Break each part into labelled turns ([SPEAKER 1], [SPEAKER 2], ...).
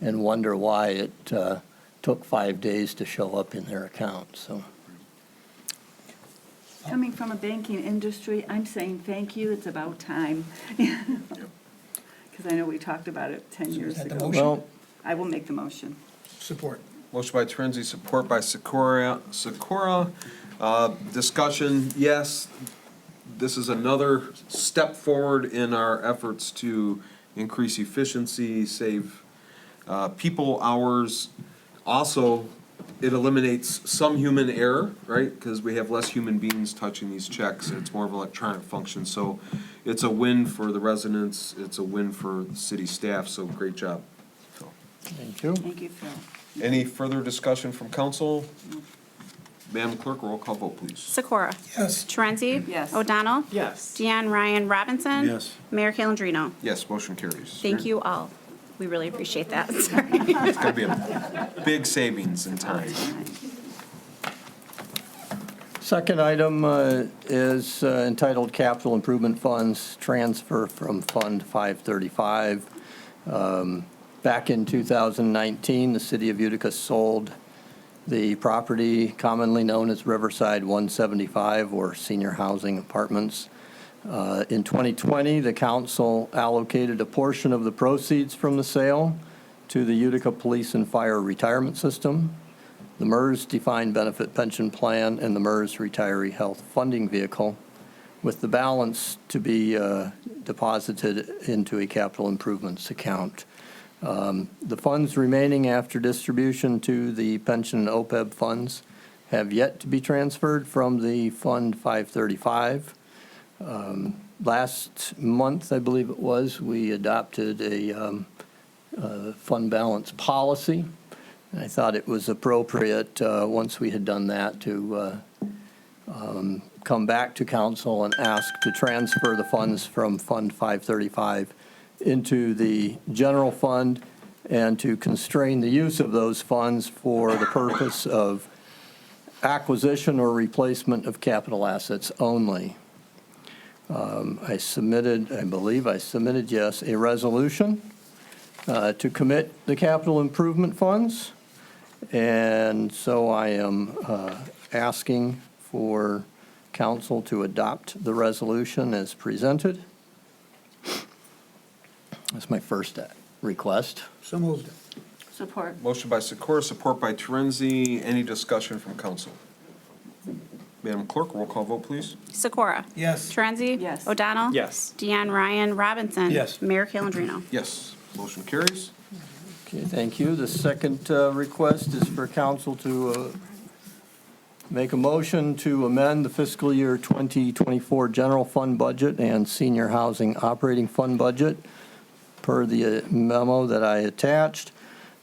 [SPEAKER 1] and wonder why it uh, took five days to show up in their account, so.
[SPEAKER 2] Coming from a banking industry, I'm saying thank you, it's about time. Because I know we talked about it 10
[SPEAKER 3] So is
[SPEAKER 2] years
[SPEAKER 3] that the
[SPEAKER 2] ago.
[SPEAKER 3] motion?
[SPEAKER 1] Well,
[SPEAKER 2] I will make the motion.
[SPEAKER 3] Support.
[SPEAKER 4] Motion by Torenzi, support by Sikora. Sikora. Uh, Discussion, yes, this is another step forward in our efforts to increase efficiency, save uh, people hours. Also, it eliminates some human error, right? Because we have less human beings touching these checks. It's more of an electronic function. So it's a win for the residents, it's a win for the city staff, so great job. Phil.
[SPEAKER 1] thank you.
[SPEAKER 2] Thank you, Phil.
[SPEAKER 4] Any further discussion from council? Madam Clerk, roll call vote, please.
[SPEAKER 5] Sikora?
[SPEAKER 3] Yes.
[SPEAKER 5] Torenzi?
[SPEAKER 2] Yes.
[SPEAKER 5] O'Donnell?
[SPEAKER 6] Yes.
[SPEAKER 5] Deanne Ryan Robinson?
[SPEAKER 6] Yes.
[SPEAKER 5] Mayor Calendino?
[SPEAKER 4] Yes, motion carries.
[SPEAKER 5] Thank you all. We really appreciate that. Sorry.
[SPEAKER 4] It's gonna be a big savings in time.
[SPEAKER 1] Second item uh, is uh, entitled Capital Improvement Funds Transfer from Fund 535. Um, Back in 2019, the city of Utica sold the property commonly known as Riverside 175 or Senior Housing Apartments. Uh, In 2020, the council allocated a portion of the proceeds from the sale to the Utica Police and Fire Retirement System the MERS Defined Benefit Pension Plan and the MERS Retiree Health Funding Vehicle, with the balance to be uh, deposited into a capital improvements account. Um, The funds remaining after distribution to the pension and OPEB funds have yet to be transferred from the Fund 535. Um, Last month, I believe it was, we adopted a um, uh, fund balance policy. And I thought it was appropriate, uh, once we had done that, to uh, um, come back to council and ask to transfer the funds from Fund 535 into the general fund and to constrain the use of those funds for the purpose of acquisition or replacement of capital assets only. Um, I submitted, I believe I submitted, yes, a resolution uh, to commit the capital improvement funds. And so I am uh, asking for council to adopt the resolution as presented. That's my first uh, request.
[SPEAKER 3] So moved.
[SPEAKER 2] Support.
[SPEAKER 4] Motion by Sikora, support by Torenzi. Any discussion from council? Madam Clerk, roll call vote, please.
[SPEAKER 5] Sikora?
[SPEAKER 3] Yes.
[SPEAKER 5] Torenzi?
[SPEAKER 2] Yes.
[SPEAKER 5] O'Donnell?
[SPEAKER 6] Yes.
[SPEAKER 5] Deanne Ryan Robinson?
[SPEAKER 3] Yes.
[SPEAKER 5] Mayor Calendino?
[SPEAKER 4] Yes, motion carries.
[SPEAKER 1] Okay, thank you. The second uh, request is for council to uh, make a motion to amend the fiscal year 2024 general fund budget and senior housing operating fund budget per the uh, memo that I attached,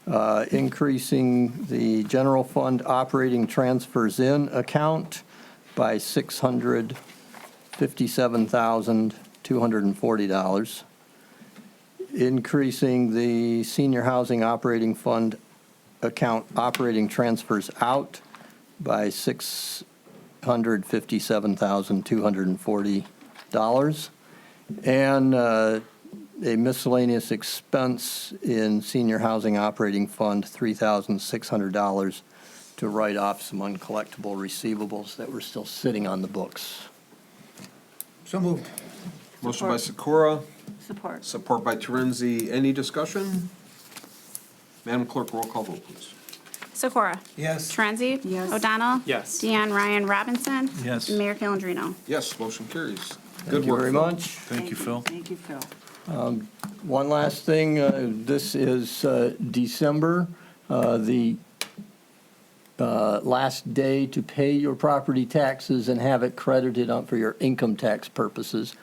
[SPEAKER 1] uh, increasing the general fund operating transfers in account by $657,240 increasing the senior housing operating fund account operating transfers out by $657,240, and uh, a miscellaneous expense in senior housing operating fund, $3,600, to write off some uncollectible receivables that were still sitting on the books.
[SPEAKER 3] So moved.
[SPEAKER 4] Motion by Sikora,
[SPEAKER 2] Support.
[SPEAKER 4] support by Torenzi. Any discussion? Madam Clerk, roll call vote, please.
[SPEAKER 5] Sikora?
[SPEAKER 3] Yes.
[SPEAKER 5] Torenzi?
[SPEAKER 2] Yes.
[SPEAKER 5] O'Donnell?
[SPEAKER 6] Yes.
[SPEAKER 5] Deanne Ryan Robinson?
[SPEAKER 6] Yes.
[SPEAKER 5] Mayor Calendino?
[SPEAKER 4] Yes, motion carries. Good
[SPEAKER 1] Thank you
[SPEAKER 4] work.
[SPEAKER 1] very
[SPEAKER 4] Phil.
[SPEAKER 1] much.
[SPEAKER 6] Thank you, Phil.
[SPEAKER 2] Thank you, Phil.
[SPEAKER 1] One last thing, uh, this is uh, December, uh, the uh, last day to pay your property taxes and have it credited on for your income tax purposes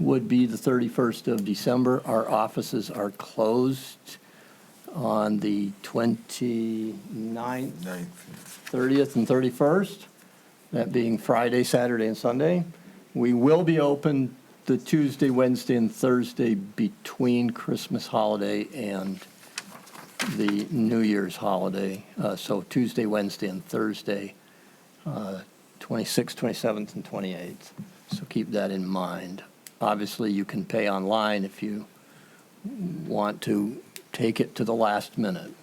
[SPEAKER 1] would be the 31st of December. Our offices are closed on the 29th,
[SPEAKER 4] Ninth.
[SPEAKER 1] 30th, and 31st, that being Friday, Saturday, and Sunday. We will be open the Tuesday, Wednesday, and Thursday between Christmas holiday and the New Year's holiday. Uh, So Tuesday, Wednesday, and Thursday, uh, 26th, 27th, and 28th. So keep that in mind. Obviously, you can pay online if you want to take it to the last minute.